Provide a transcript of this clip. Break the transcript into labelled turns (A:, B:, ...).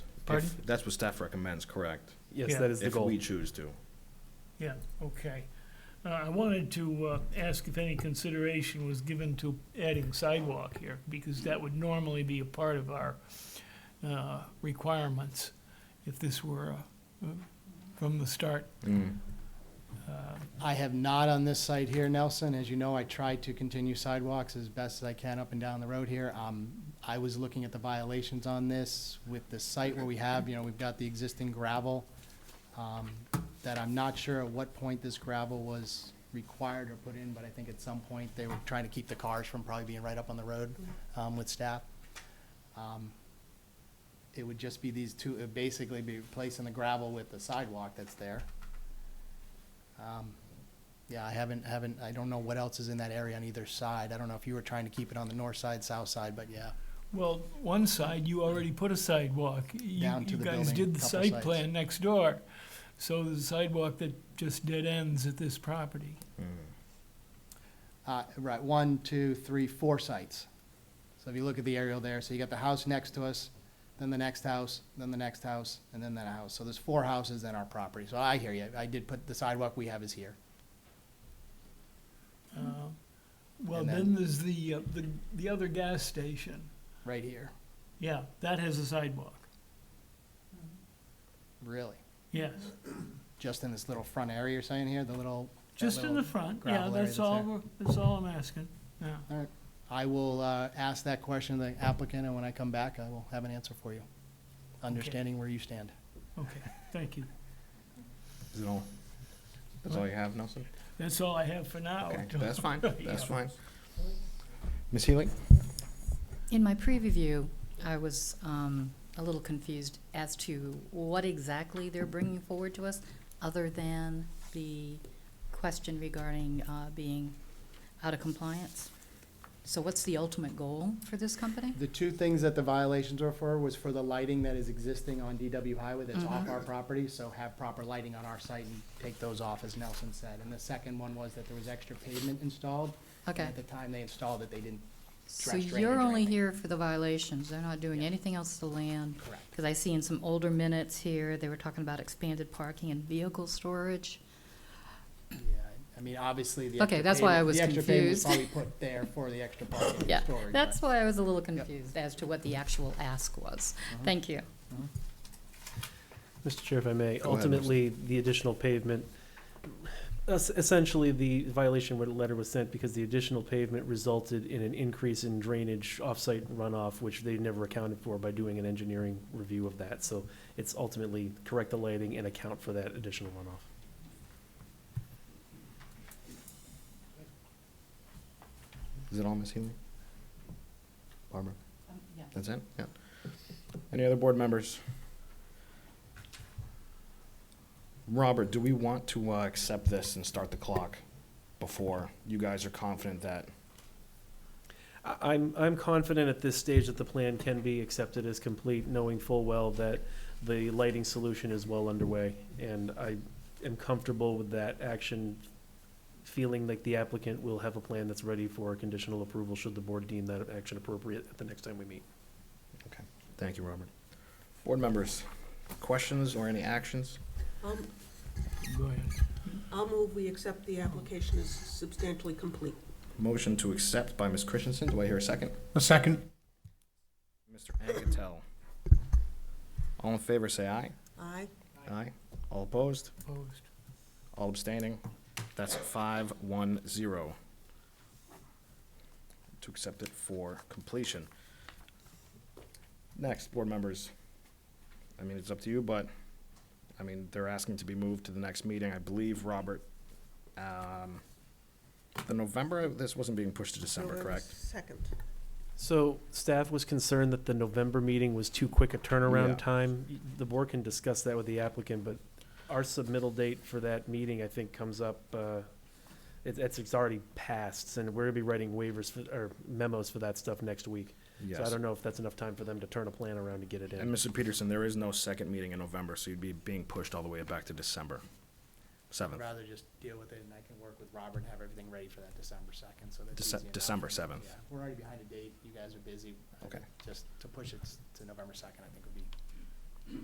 A: Pardon?
B: If That's what staff recommends, correct?
A: Yeah.
C: Yes, that is the
B: If
C: goal.
B: we choose to.
A: Yeah, okay. Uh, I wanted to uh, ask if any consideration was given to adding sidewalk here, because that would normally be a part of our uh, requirements if this were uh, from the start.
B: Mm.
A: Uh,
D: I have not on this site here, Nelson. As you know, I tried to continue sidewalks as best as I can up and down the road here. Um, I was looking at the violations on this with the site where we have, you know, we've got the existing gravel. Um, that I'm not sure at what point this gravel was required or put in, but I think at some point they were trying to keep the cars from probably being right up on the road, um, with staff. Um, It would just be these two, it'd basically be replacing the gravel with the sidewalk that's there. Um, yeah, I haven't, haven't, I don't know what else is in that area on either side. I don't know if you were trying to keep it on the north side, south side, but yeah.
A: Well, one side, you already put a sidewalk. You-
D: Down to
A: You
D: the
A: guys
D: building,
A: did the
D: couple
A: site
D: sites.
A: plan next door, so there's a sidewalk that just dead ends at this property.
B: Mm.
D: Uh, right, one, two, three, four sites. So if you look at the aerial there, so you got the house next to us, then the next house, then the next house, and then that house. So there's four houses in our property. So I hear you. I did put, the sidewalk we have is here.
A: Uh, Well,
D: Mm-hmm. And then-
A: then there's the, uh, the, the other gas station.
D: Right here,
A: Yeah, that has a sidewalk.
D: really.
A: Yes,
D: Just in this little front area you're saying here, the little. that
A: just in
D: little-
A: the front, yeah,
D: gravel area
A: that's
D: that's
A: all,
D: there.
A: we're- that's all I'm asking, yeah.
D: All right. I will, uh, ask that question to the applicant and when I come back, I will have an answer for you. Understanding where you stand.
A: Okay, thank you.
B: Is it all? That's all you have, Nelson?
A: That's all I have for now.
B: Okay, that's fine, that's
A: Yeah.
B: fine. Ms. Healy?
E: In my pre-review, I was um, a little confused as to what exactly they're bringing forward to us, other than the question regarding uh, being out of compliance. So what's the ultimate goal for this company?
D: The two things that the violations were for was for the lighting that is existing on DW Highway that's
E: Mm-hmm.
D: off our property, so have proper lighting on our site and take those off, as Nelson said. And the second one was that there was extra pavement installed. and
E: Okay,
D: At the time they installed it, they didn't,
E: so
D: trash
E: you're
D: drainage or
E: only
D: anything.
E: here for the violations, they're not doing
D: Yeah.
E: anything else to land?
D: correct.
E: Because I see in some older minutes here, they were talking about expanded parking and vehicle storage.
D: Yeah, I mean, obviously, the.
E: Okay,
D: extra
E: that's why I
D: pavement-
E: was
D: The extra pavement was probably
E: confused.
D: put there for the extra parking and
E: Yeah,
D: storage.
E: that's
D: but-
E: why I was a little confused as to what the actual ask was.
D: uh-huh. Mm-hmm.
E: Thank you.
C: Mr. Chair, if I may,
B: Go ahead, Mr.
C: ultimately, the additional pavement, es- essentially, the violation where the letter was sent because the additional pavement resulted in an increase in drainage offsite runoff, which they never accounted for by doing an engineering review of that. So it's ultimately correct the lighting and account for that additional runoff.
B: Is it all, Ms. Healy? Barbara?
E: yeah.
B: That's it? Yeah. Any other board members? Robert, do we want to uh, accept this and start the clock before you guys are confident that?
C: I- I'm, I'm confident at this stage that the plan can be accepted as complete, knowing full well that the lighting solution is well underway. And I am comfortable with that action, feeling like the applicant will have a plan that's ready for conditional approval should the board deem that action appropriate at the next time we meet.
B: Thank you, Robert. Board members, questions or any actions?
F: I'll,
A: Go ahead.
F: I'll move we accept
B: Oh.
F: the application as substantially complete.
B: Motion to accept by Ms. Christensen. Do I hear a second?
G: A second.
B: Mr. Anketell. All in favor, say aye.
F: Aye.
B: Aye. All opposed?
A: Opposed.
B: All abstaining? That's five, one, zero. To accept it for completion. Next, board members. I mean, it's up to you, but, I mean, they're asking to be moved to the next meeting, I believe, Robert. Um, The November, this wasn't being pushed to December,
F: November
B: correct?
F: Second.
C: So staff was concerned that the November meeting was too quick a
B: Yeah.
C: turnaround time. The board can discuss that with the applicant, but our submittal date for that meeting, I think, comes up, uh, it, it's, it's already passed, and we're gonna be writing waivers for, or memos for that stuff next week. So I
B: Yes.
C: don't know if that's enough time for them to turn a plan around to get it
B: And
C: in.
B: Mr. Peterson, there is no second meeting in November, so you'd be being pushed all the way back to December
D: I'd
B: seventh,
D: rather just deal with it and I can work with Robert and have everything ready for that December second, so that's easy
B: Dece-
D: enough.
B: December seventh.
D: Yeah, We're already behind a date. You guys are busy. I
B: Okay.
D: think Just to push it s- to November second, I think would be